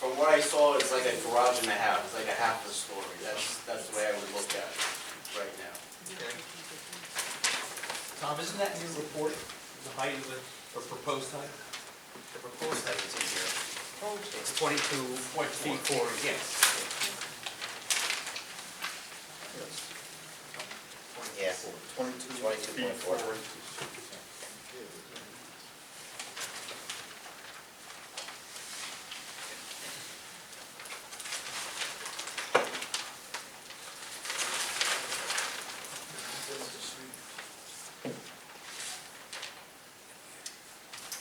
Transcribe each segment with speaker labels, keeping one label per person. Speaker 1: From what I saw, it's like a garage and a half, it's like a half a story, that's, that's the way I would look at it right now.
Speaker 2: Okay. Tom, isn't that in your report, the height of the, or proposed height?
Speaker 3: The proposed height is in here. It's twenty-two
Speaker 2: Point
Speaker 3: feet four inches. Yeah. Twenty-two point four.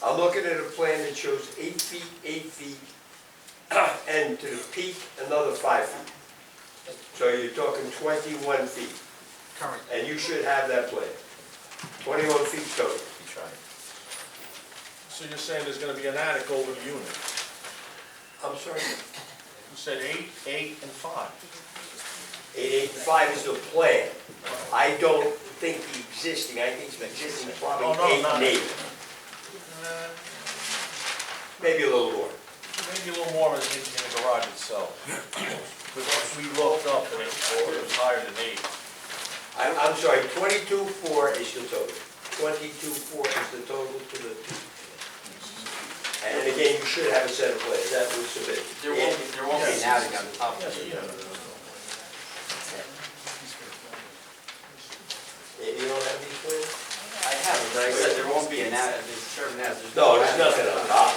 Speaker 4: I'm looking at a plan that shows eight feet, eight feet, and to the peak, another five feet. So you're talking twenty-one feet,
Speaker 3: Current.
Speaker 4: and you should have that plan. Twenty-one feet total.
Speaker 3: We tried.
Speaker 5: So you're saying there's gonna be an attic over the unit?
Speaker 4: I'm sorry?
Speaker 5: You said eight, eight, and five.
Speaker 4: Eight, eight, five is the plan. I don't think the existing, I think the existing is probably
Speaker 5: Oh, no,
Speaker 4: eight
Speaker 5: not-
Speaker 4: and eight,
Speaker 5: Uh,
Speaker 4: maybe a little more.
Speaker 5: Maybe a little more in, in the garage itself. Because we looked up and it was higher than eight.
Speaker 4: I'm, I'm sorry, twenty-two, four is the total. Twenty-two, four is the total to the peak. And again, you should have a set of plans, that was submitted.
Speaker 1: There won't, be- there won't be an attic on top of
Speaker 5: Yes,
Speaker 1: it.
Speaker 5: yeah.
Speaker 4: You don't have these plans?
Speaker 1: I have it, but I said there won't be an attic, there's Sherman has, there's.
Speaker 4: No, there's nothing on top.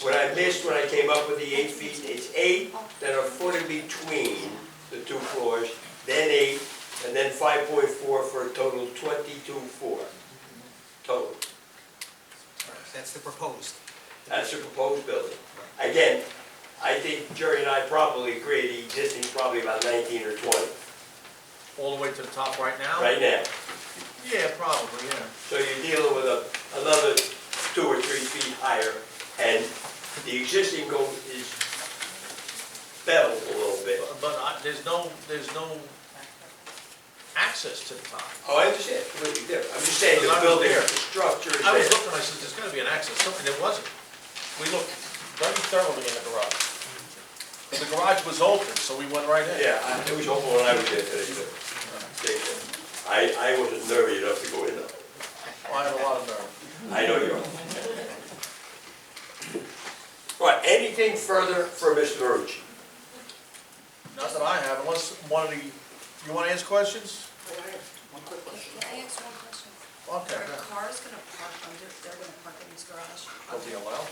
Speaker 4: What I missed when I came up with the eight feet, it's eight, then a foot in between the two floors, then eight, and then five point four for a total twenty-two four. Total.
Speaker 3: That's the proposed.
Speaker 4: That's the proposed building. Again, I think Jerry and I probably agree, the existing's probably about nineteen or twenty
Speaker 5: All the way to the top right now?
Speaker 4: right now.
Speaker 5: Yeah, probably, yeah.
Speaker 4: So you're dealing with a, another two or three feet higher, and the existing go is beveled a little bit.
Speaker 5: But- But I, there's no, there's no access to the top.
Speaker 4: Oh, I understand, completely different. I'm just saying the building, the structure is
Speaker 5: I was
Speaker 4: there.
Speaker 5: looking, I said, there's gotta be an access, something, there wasn't. We looked very thoroughly in the garage. The garage was open, so we went right in.
Speaker 4: Yeah, I- it was hopeful when I was there today, too. They- I, I wasn't nervy enough to go in though.
Speaker 5: Oh, I had a lot of nerve.
Speaker 4: I know you are. All right, anything further for Mr. Marucci?
Speaker 5: Not that I have, unless one of the, you wanna ask questions?
Speaker 6: One quick question.
Speaker 7: Can I ask one question?
Speaker 5: Okay.
Speaker 7: Are cars gonna park under, they're gonna park in this garage?
Speaker 5: I'll be allowed.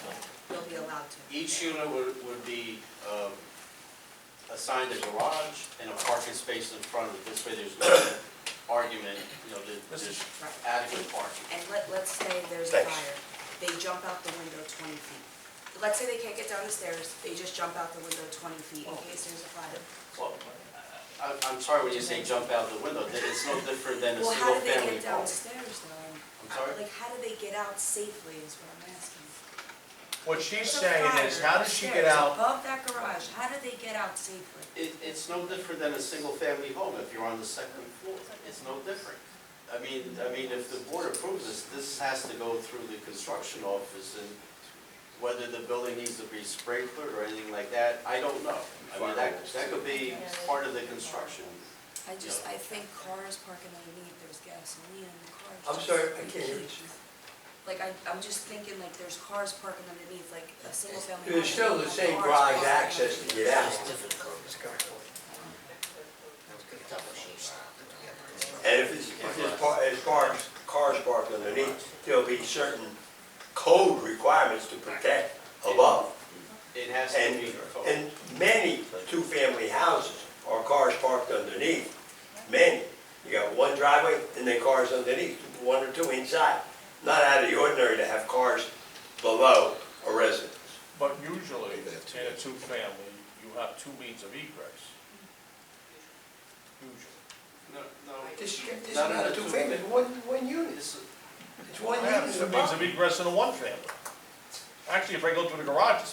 Speaker 7: They'll be allowed to?
Speaker 1: Each unit would, would be, um, assigned a garage and a parking space in front of it, this way there's no argument, you know, there- there's
Speaker 7: Right.
Speaker 1: adequate parking.
Speaker 7: And let, let's say there's a
Speaker 4: Thanks.
Speaker 7: fire, they jump out the window twenty feet. Let's say they can't get down the stairs, they just jump out the window twenty feet in case there's a fire.
Speaker 1: Well, I, I'm sorry when you say jump out the window, that it's no different than a
Speaker 7: Well, how
Speaker 1: single
Speaker 7: do they
Speaker 1: family
Speaker 7: get
Speaker 1: home.
Speaker 7: downstairs though?
Speaker 1: I'm sorry?
Speaker 7: Like, how do they get out safely is what I'm asking.
Speaker 5: What
Speaker 7: There's
Speaker 5: she's
Speaker 7: a
Speaker 5: saying
Speaker 7: fire
Speaker 5: is, how does she get
Speaker 7: upstairs
Speaker 5: out?
Speaker 7: Above that garage, how do they get out safely?
Speaker 1: It, it's no different than a single-family home if you're on the second floor. It's no different. I mean, I mean, if the board approves this, this has to go through the construction office and whether the building needs to be sprinkled or anything like that, I don't know. I mean, that, that could be part of the construction.
Speaker 7: I just, I think cars parking underneath, there's gasoline in the cars.
Speaker 4: I'm sorry, I can't hear you.
Speaker 7: Like, I, I'm just thinking like there's cars parking underneath, like a single family.
Speaker 4: There's
Speaker 7: home,
Speaker 4: still
Speaker 7: they
Speaker 4: the
Speaker 7: have
Speaker 4: same
Speaker 7: cars
Speaker 4: garage
Speaker 7: parking
Speaker 4: access
Speaker 7: underneath.
Speaker 4: to get out, and if it's, if there's par, if cars, cars parked underneath, there'll be certain code requirements to protect above.
Speaker 1: It has to
Speaker 4: And,
Speaker 1: be.
Speaker 4: and many two-family houses are cars parked underneath, many. You got one driveway and then cars underneath, one or two inside. Not out of the ordinary to have cars below a residence.
Speaker 5: But usually, in a two-family, you have two means of egress. Usually.
Speaker 1: No, no.
Speaker 4: This,
Speaker 1: is not a two-family,
Speaker 4: it's one, one unit,
Speaker 1: This is-
Speaker 4: it's one
Speaker 5: I have two means of egress in a one-family. Actually, if I go through the garage, it's